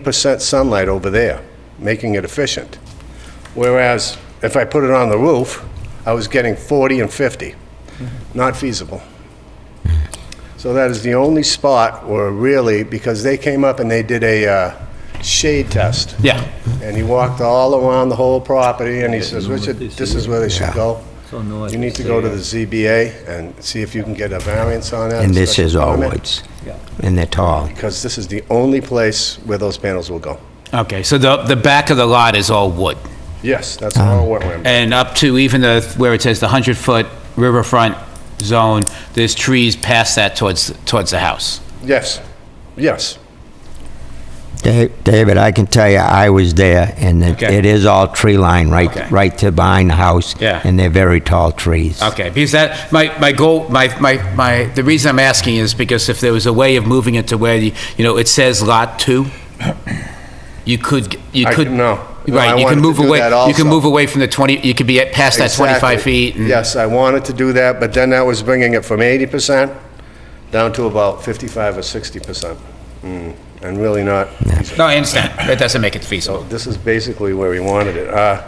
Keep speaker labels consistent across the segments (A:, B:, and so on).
A: percent sunlight over there, making it efficient. Whereas if I put it on the roof, I was getting 40 and 50. Not feasible. So that is the only spot where really, because they came up and they did a uh, shade test.
B: Yeah.
A: And he walked all around the whole property, and he says, Richard, this is where they should go. You need to go to the ZBA and see if you can get a variance on that.
C: And this is all
A: special permit,
C: woods. And they're tall.
A: Because this is the only place where those panels will go.
B: Okay, so the, the back of the lot is all wood,
A: Yes, that's
B: Um,
A: all wetland.
B: and up to even the, where it says the 100-foot riverfront zone, there's trees past that towards, towards the house.
A: Yes, yes.
C: Da- David, I can tell you, I was there, and it
B: Okay.
C: it is all tree line,
B: Okay.
C: right, right to behind the house.
B: Yeah.
C: And they're very tall trees.
A: Uh,
B: Okay, because that, my, my goal, my, my, my, the reason I'm asking is because if there was a way of moving it to where, you you know, it says Lot 2, you could, you
A: I
B: could...
A: can- no. No, I
B: Right, you
A: wanted
B: can
A: to
B: move
A: do
B: away,
A: that
B: you can
A: also.
B: move away from the 20, you could be at past that 25
A: Exactly.
B: feet. and-
A: Yes, I wanted to do that, but then that was bringing it from 80% down to about 55 or 60%. Mm, And really not,
B: No, I understand, that doesn't make it feasible.
A: this is basically where we wanted it. Uh,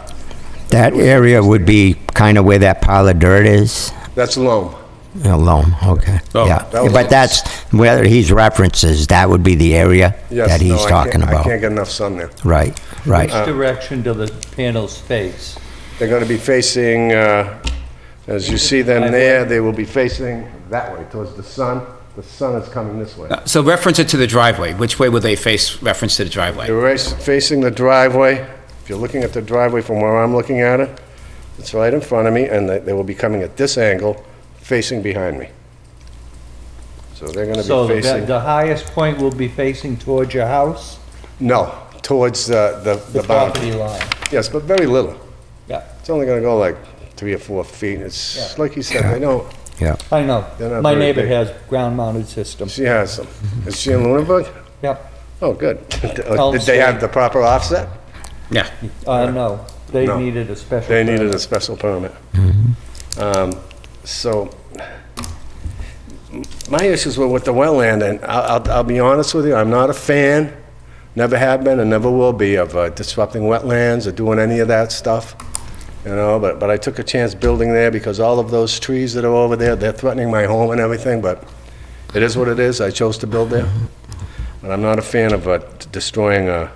C: That area would be kind of where that pile of dirt is,
A: That's loam.
C: alone, okay,
B: Oh,
C: yeah.
A: that was-
C: But that's, whether he's references, that would be the area
A: Yes,
C: that
A: no,
C: he's
A: I can't-
C: talking
A: I
C: about.
A: can't Uh, get enough sun there.
C: Right, right.
D: Which direction do the panels face?
A: They're going to be facing, uh, as you see them there, they will be facing that way, towards the sun. The sun is coming this way.
B: So reference it to the driveway, which way would they face reference to the driveway?
A: They're rac- facing the driveway. If you're looking at the driveway from where I'm looking at it, it's right in front of me, and they- they will be coming at this angle, facing behind me. So they're going to
D: So
A: be
D: the
A: facing,
D: the highest point will be facing towards your house?
A: no, towards the the
D: The
A: the boundary.
D: property line?
A: Yes, but very little.
D: Yeah,
A: It's only going to go like three or four feet. It's, like you said, I know,
D: I know.
A: They're not
D: My
A: very
D: neighbor
A: big.
D: has ground-mounted system.
A: she has them. Is she in Lunenburg?
D: Yep,
A: Oh, good.
D: Elm
A: Did they have
D: Street.
A: the proper offset?
B: Yeah.
D: uh, no, they
A: No.
D: needed a special.
A: They needed
D: permit. Mm-hmm.
A: a special permit. Um, So, my issues were with the wetland, and I'll, I'll- I'll be honest with you, I'm not a fan, never have been and never will be, of uh, disrupting wetlands or doing any of that stuff, you know, but, but I took a chance building there because all of those trees that are over there, they're threatening my home and everything, but it is what it is, I chose to build there.
D: Mm-hmm.
A: But I'm not a fan of uh, destroying uh,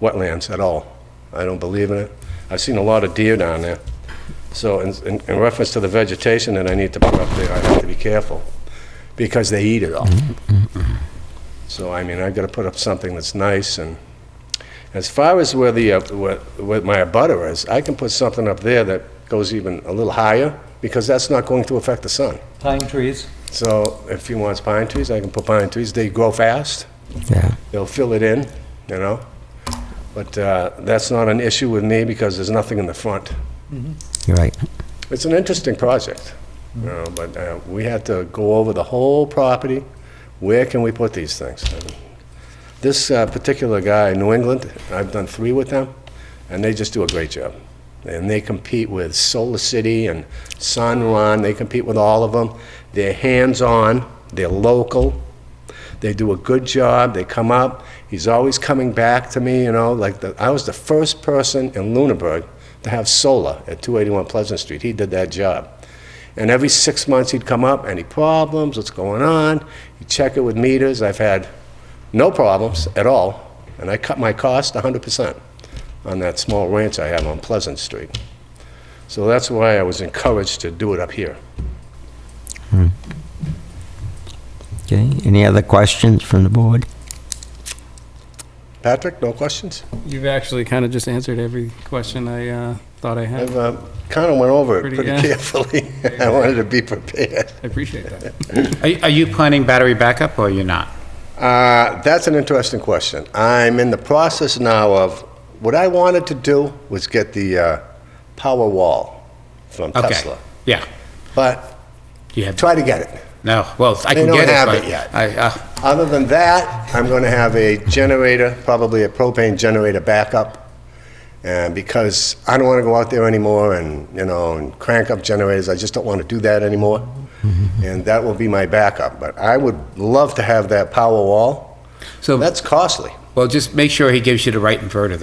A: wetlands at all. I don't believe in it. I've seen a lot of deer down there. So in, in- in reference to the vegetation that I need to put up there, I have to be careful, because they eat it all. So, I mean, I've got to put up something that's nice, and as far as where the, uh, where where my abutter is, I can put something up there that goes even a little higher, because that's not going to affect the sun.
D: Pine trees,
A: So if he wants pine trees, I can put pine trees. They grow fast
C: Yeah,
A: they'll fill it in, you know? But uh, that's not an issue with me because there's nothing in the front.
C: you're right.
A: It's an interesting project, you know, but uh, we had to go over the whole property. Where can we put these things? And This uh, particular guy in New England, I've done three with them, and they just do a great job. And they compete with Solar City and Sunrun, they compete with all of them. They're hands-on, they're local, they do a good job, they come up. He's always coming back to me, you know, like, the- I was the first person in Lunenburg to have solar at 281 Pleasant Street. He did that job. And every six months, he'd come up, any problems, what's going on? He'd check it with meters. I've had no problems at all, and I cut my cost 100% on that small ranch I have on Pleasant Street. So that's why I was encouraged to do it up here.
C: Okay, any other questions from the board?
A: Patrick, no questions?
E: You've actually kind of just answered every question I uh, thought I had.
A: I've kind of went over it
E: Pretty
A: pretty
E: good.
A: carefully. I wanted to be prepared.
E: I appreciate that.
B: Are are you planning battery backup, or you're not?
A: Uh, That's an interesting question. I'm in the process now of, what I wanted to do was get the uh, power wall from
B: Okay.
A: Tesla,
B: Yeah.
A: but
B: You have,
A: try to get it.
B: no, well, I
A: They
B: can
A: don't
B: get it,
A: have
B: but
A: it yet.
B: I, uh,
A: Other than that, I'm going to have a generator, probably a propane generator backup, and because I don't want to go out there anymore and, you know, and crank up generators, I just don't want to do that anymore, and that will be my backup. But I would love to have that power wall.
B: So-
A: That's costly.
B: Well, just make sure he gives you the right inverter